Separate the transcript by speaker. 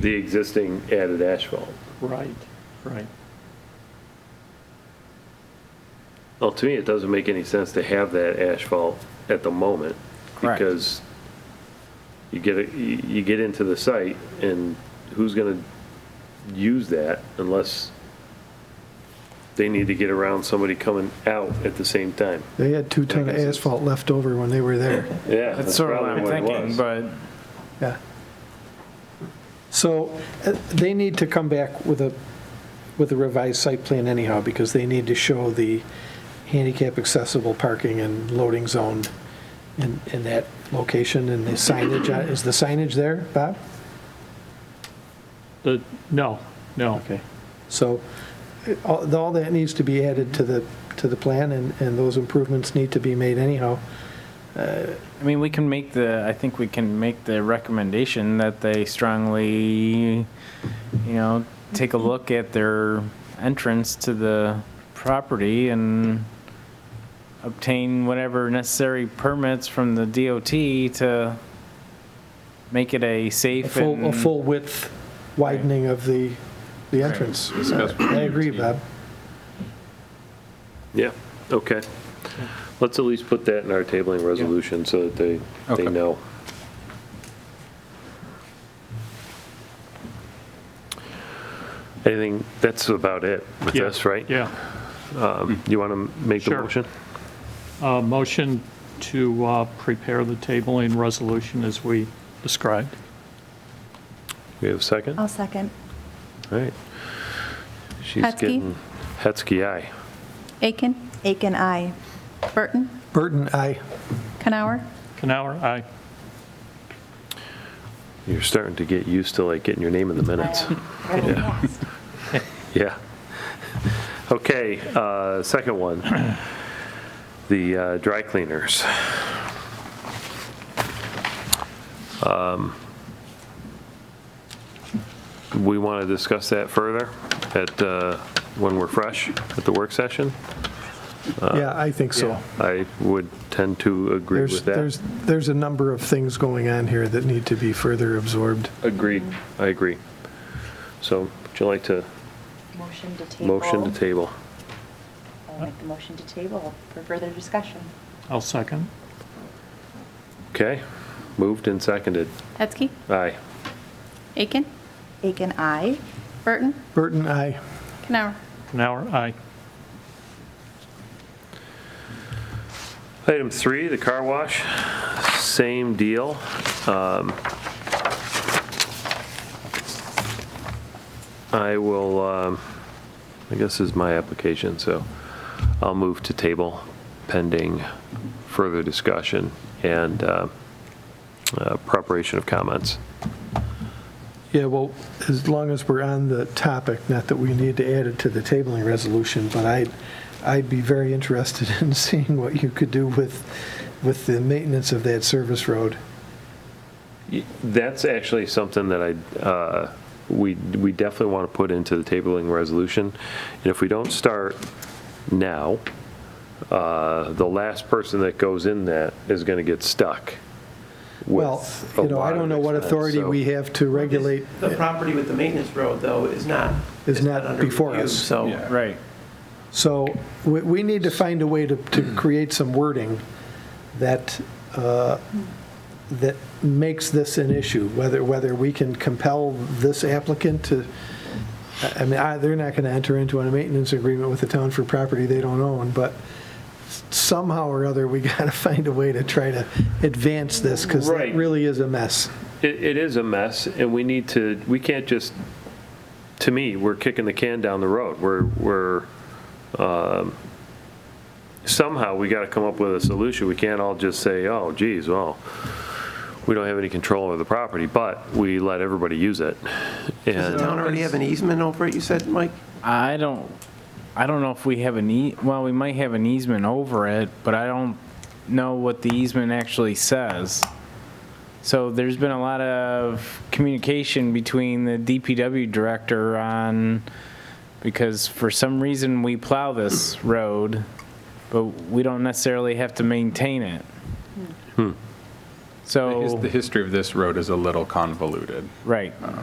Speaker 1: the existing added asphalt.
Speaker 2: Right, right.
Speaker 1: Well, to me, it doesn't make any sense to have that asphalt at the moment.
Speaker 3: Correct.
Speaker 1: Because you get, it- you you get into the site and who's going to use that unless they need to get around somebody coming out at the same time?
Speaker 4: They had two ton of
Speaker 1: Like I said.
Speaker 4: asphalt left over when they were there.
Speaker 1: Yeah.
Speaker 3: That's sort of what
Speaker 1: probably
Speaker 3: I'm
Speaker 1: it
Speaker 3: thinking,
Speaker 1: was.
Speaker 3: but
Speaker 4: Yeah. So uh, they need to come back with a, with a revised site plan anyhow, because they need to show the handicap accessible parking and loading zone in, in that location and the signage. uh, Is the signage there, Bob?
Speaker 2: The, no, no.
Speaker 4: Okay. So uh, all all that needs to be added to the, to the plan, and, and those improvements need to be made anyhow.
Speaker 3: I mean, we can make the, I think we can make the recommendation that they strongly, you know, take a look at their entrance to the property and obtain whatever necessary permits from the DOT to make it a
Speaker 4: A
Speaker 3: safe
Speaker 4: full, a
Speaker 3: and
Speaker 4: full width widening of the, the entrance. I agree, Bob.
Speaker 1: Yeah, okay. Let's at least put that in our tabling resolution so that they, they
Speaker 5: Okay.
Speaker 1: know. Anything, that's about it with
Speaker 2: Yeah,
Speaker 1: this, right?
Speaker 2: Yeah.
Speaker 1: You want to make the
Speaker 2: Sure.
Speaker 1: motion?
Speaker 2: Uh, Motion to uh, prepare the tabling resolution as we described.
Speaker 1: We have a second? All
Speaker 6: Uh,
Speaker 7: I'll second.
Speaker 1: right. She's
Speaker 7: Hetzke.
Speaker 1: getting Hetzke, aye.
Speaker 7: Aiken? Aiken, I. Burton?
Speaker 4: Burton, aye.
Speaker 7: Canower?
Speaker 2: Canower, aye.
Speaker 1: You're starting to get used to like getting your name in the minutes. Yeah. Yeah. Okay, uh, second one, the uh, dry cleaners. Um, We want to discuss that further at, uh, when we're fresh at the work session.
Speaker 4: Yeah, I think so.
Speaker 1: I would tend to Uh, agree
Speaker 4: There's,
Speaker 1: with that.
Speaker 4: there's, there's a number of things going on here that need to be further absorbed.
Speaker 1: Agreed. I agree. So would you like to
Speaker 8: Motion to table.
Speaker 1: motion to table?
Speaker 8: I'll make the motion to table for further discussion.
Speaker 2: I'll second.
Speaker 1: Okay, moved and seconded.
Speaker 7: Hetzke?
Speaker 1: Aye.
Speaker 7: Aiken?
Speaker 8: Aiken, aye.
Speaker 7: Burton?
Speaker 4: Burton, aye.
Speaker 7: Canower?
Speaker 2: Canower, aye.
Speaker 1: Item three, the car wash, same deal. Um, I will, um, I guess this is my application, so I'll move to table pending further discussion and uh, uh, preparation of comments.
Speaker 4: Yeah, well, as long as we're on the topic, not that we need to add it to the tabling resolution, but I'd, I'd be very interested in seeing what you could do with, with the maintenance of that service road.
Speaker 1: Y- That's actually something that I, uh, we, we definitely want to put into the tabling resolution. And if we don't start now, uh, the last person that goes in that is going to get stuck
Speaker 4: Well,
Speaker 1: with a
Speaker 4: you know, I
Speaker 1: lot
Speaker 4: don't
Speaker 1: of
Speaker 4: know what
Speaker 1: expense,
Speaker 4: authority
Speaker 1: so-
Speaker 4: we have to regulate.
Speaker 6: The property with the maintenance road, though, is not.
Speaker 4: Is not
Speaker 6: under
Speaker 4: before
Speaker 6: review,
Speaker 4: us.
Speaker 6: So,
Speaker 3: Right.
Speaker 4: So we, we need to find a way to, to create some wording that, uh, that makes this an issue, whether, whether we can compel this applicant to, I- I mean, I, they're not going to enter into a maintenance agreement with the town for property they don't own, but somehow or other, we got to find a way to try to advance this, because that
Speaker 1: Right.
Speaker 4: really is a mess.
Speaker 1: It, it is a mess, and we need to, we can't just, to me, we're kicking the can down the road. We're, we're, um, somehow, we got to come up with a solution. We can't all just say, oh, geez, well, we don't have any control over the property, but we let everybody use it.
Speaker 6: does the
Speaker 1: And,
Speaker 6: town already have an easement over it, you said, Mike?
Speaker 3: I don't, I don't know if we have an ea, well, we might have an easement over it, but I don't know what the easement actually says. So there's been a lot of communication between the DPW director on, because for some reason we plow this road, but we don't necessarily have to maintain it.
Speaker 1: Hmm.
Speaker 3: So,
Speaker 5: The history of this road is a little convoluted.
Speaker 3: right,